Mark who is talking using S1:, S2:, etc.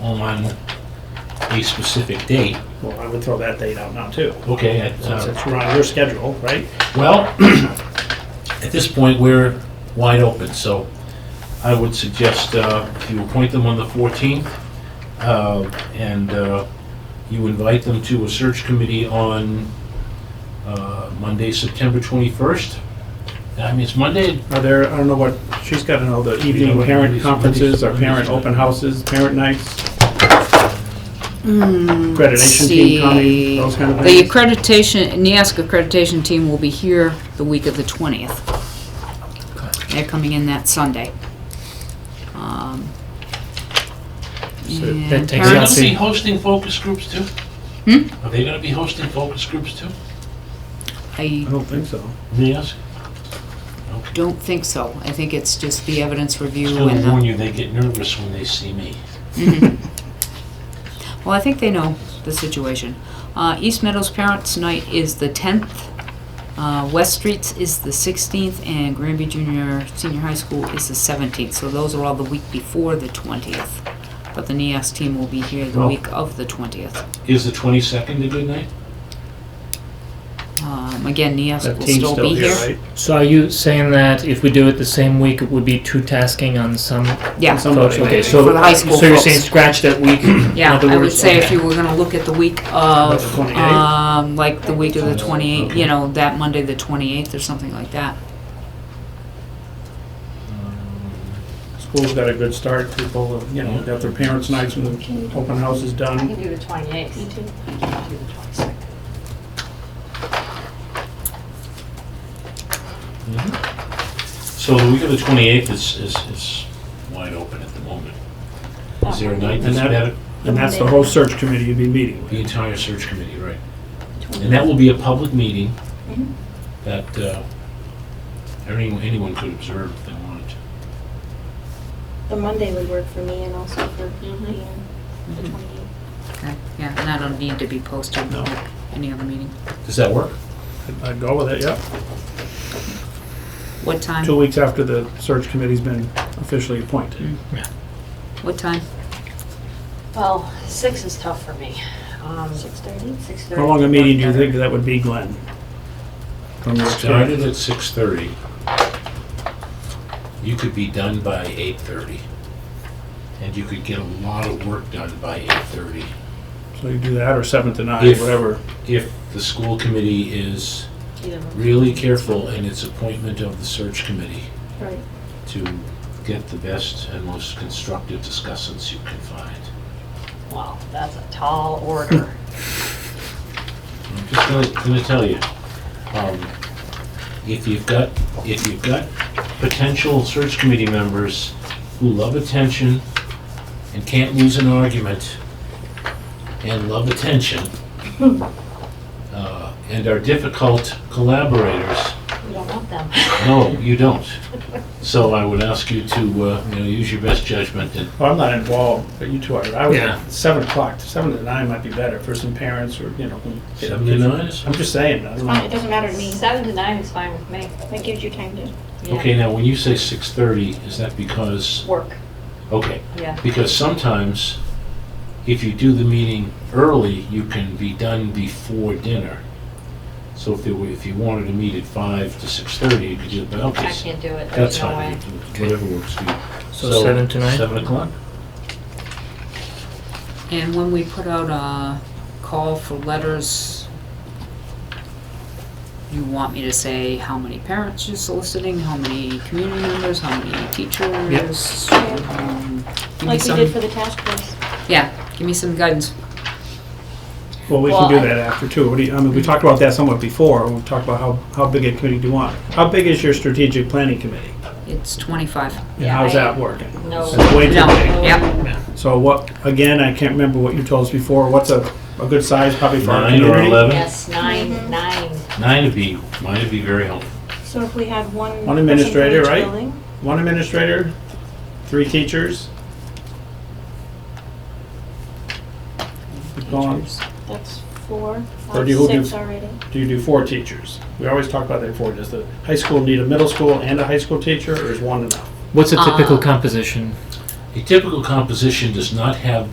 S1: on a specific date.
S2: Well, I would throw that date out now too,
S1: Okay, I-
S2: since
S1: uh,
S2: it's on your schedule, right?
S1: well, at this point, we're wide open, so I would suggest uh, if you appoint them on the 14th, uh, and uh, you invite them to a search committee on uh, Monday, September 21st. I mean, it's Monday,
S2: Are there, I don't know what, she's got to know the evening parent conferences or parent open houses, parent nights, accreditation team coming, those kind of
S3: Hmm, The
S2: things.
S3: accreditation, NIASC accreditation team will be here the week of the 20th. They're coming in that Sunday. Um,
S2: So
S1: Are they
S2: that takes Yeah,
S3: and
S1: going
S2: out
S3: parents-
S1: to
S2: see-
S1: be hosting focus groups too?
S3: Hmm?
S1: Are they going to be hosting focus groups too?
S3: I
S2: I don't think so.
S1: Yes.
S3: don't think so. I think it's just the evidence
S1: Just
S3: review
S1: going
S3: and
S1: to warn
S3: the,
S1: you, they get nervous when they see me.
S3: well, I think they know the situation. Uh, East Meadows Parents Night is the 10th, uh, West Streets is the 16th, and Granby Junior Senior High School is the 17th. So those are all the week before the 20th. But the NIASC team will be here the
S2: Oh.
S1: Well-
S3: week of the 20th.
S1: Is the 22nd a good night?
S3: Um, again, NIASC
S2: That
S3: will
S2: team's
S3: still
S2: still
S3: be
S2: here,
S3: here.
S2: right?
S4: So are you saying that if we do it the same week, it would be two tasking on some
S3: Yeah,
S2: Some-
S3: so
S4: folks? Okay, so
S3: For the high school
S4: so you're
S3: folks.
S4: saying scratch that week. in
S3: Yeah,
S4: other
S3: I would
S4: words,
S3: say if
S4: okay.
S3: you were gonna look at the week of,
S2: The 28th?
S3: um, like the week of the twenty-eighth, you know, that Monday, the twenty-eighth or something like that.
S2: School's got a good start, people, you know, got their parents' nights and the open house is
S5: I
S2: done.
S5: can do the 28th. Me too. I can do the 22nd.
S1: Mm-hmm. So the week of the 28th is, is, is wide open at the moment. Is there a night that's
S2: And that-
S1: better?
S2: And that's the whole search committee you'd be meeting
S1: The
S2: with.
S1: entire search committee, right. And that will be a public meeting Mm-hmm.
S5: Mhm.
S1: that uh, anyone, anyone could observe if they wanted to.
S6: The Monday would work for me and also for Ian, the 28th.
S2: Mm-hmm.
S3: Okay, yeah, and I don't need to be posted
S2: No.
S3: like any other meeting.
S1: Does that work?
S2: I'd- I'd go with it, yeah.
S3: What time?
S2: Two weeks after the search committee's been officially appointed.
S3: What time?
S5: Well, 6 is tough for me. Um,
S6: 6:30?
S5: 6:30.
S2: How long a meeting do you think that would be, Glenn? From your
S1: Started
S2: experience?
S1: at 6:30. You could be done by 8:30. And you could get a lot of work done by 8:30.
S2: So you do that or seven to nine,
S1: If-
S2: whatever.
S1: If the school committee is
S5: Either one.
S1: really careful in its appointment of the search committee
S6: Right.
S2: Mm-hmm.
S1: to get the best and most constructive discussants you can find.
S5: Wow, that's a tall order.
S1: I'm just gonna, gonna tell you, um, if you've got, if you've got potential search committee members who love attention and can't lose an argument and love attention, uh, and are difficult collaborators,
S5: We don't want them.
S1: no, you don't. So I would ask you to, uh, you know, use your best judgment and
S2: Well, Oh, I'm not involved, but you two are. I
S1: Yeah.
S2: would, seven o'clock, seven to nine might be better for some parents or, you know. get-
S1: seven to nine is
S2: I'm just saying, I don't
S6: Fine, It
S2: know.
S6: doesn't matter to me.
S5: 7 to 9 is fine with me.
S6: That gives you time to,
S5: Yeah.
S1: Okay, now, when you say 6:30, is that because,
S5: Work,
S1: okay,
S5: yeah.
S1: because sometimes if you do the meeting early, you can be done before dinner. So if you, were- if you wanted to meet at 5 to 6:30, you could do it, but okay,
S5: I
S1: s-
S5: can't do it.
S1: that's
S5: There's no
S1: fine,
S5: way.
S1: whatever works for you.
S4: So seven to nine?
S1: 7 o'clock?
S3: And when we put out a call for letters, you want me to say how many parents you're soliciting, how many community members, how many teachers? um, Give me
S6: like we did
S3: some,
S6: for the task force.
S3: yeah, give me some guidance.
S2: Well, we
S5: Well,
S2: can do
S5: I-
S2: that after too. What do you, I mean, we talked about that somewhat before. We talked about how, how big a committee do you want? How big is your strategic planning committee?
S3: It's 25.
S2: And how's
S5: I-
S2: that working?
S5: No.
S2: It's way too
S3: No,
S2: big.
S3: yep.
S2: So what, again, I can't remember what you told us before. What's a, a good size probably for our
S1: 9 or
S2: community?
S1: 11?
S5: Yes, 9,
S6: Mhm.
S5: 9.
S1: 9 would be, mine would be very helpful.
S6: So if we had one. person
S2: One
S6: for
S2: administrator,
S6: each
S2: right?
S6: building,
S2: One administrator, three teachers. Go on.
S3: Teachers.
S6: That's four,
S2: Or
S6: five,
S2: do you- who
S6: six
S2: do-
S6: already.
S2: Do you do four teachers? We always talk about that four. Does the high school need a middle school and a high school teacher, or is one enough?
S4: What's a typical
S3: Uh,
S4: composition?
S1: A typical composition does not have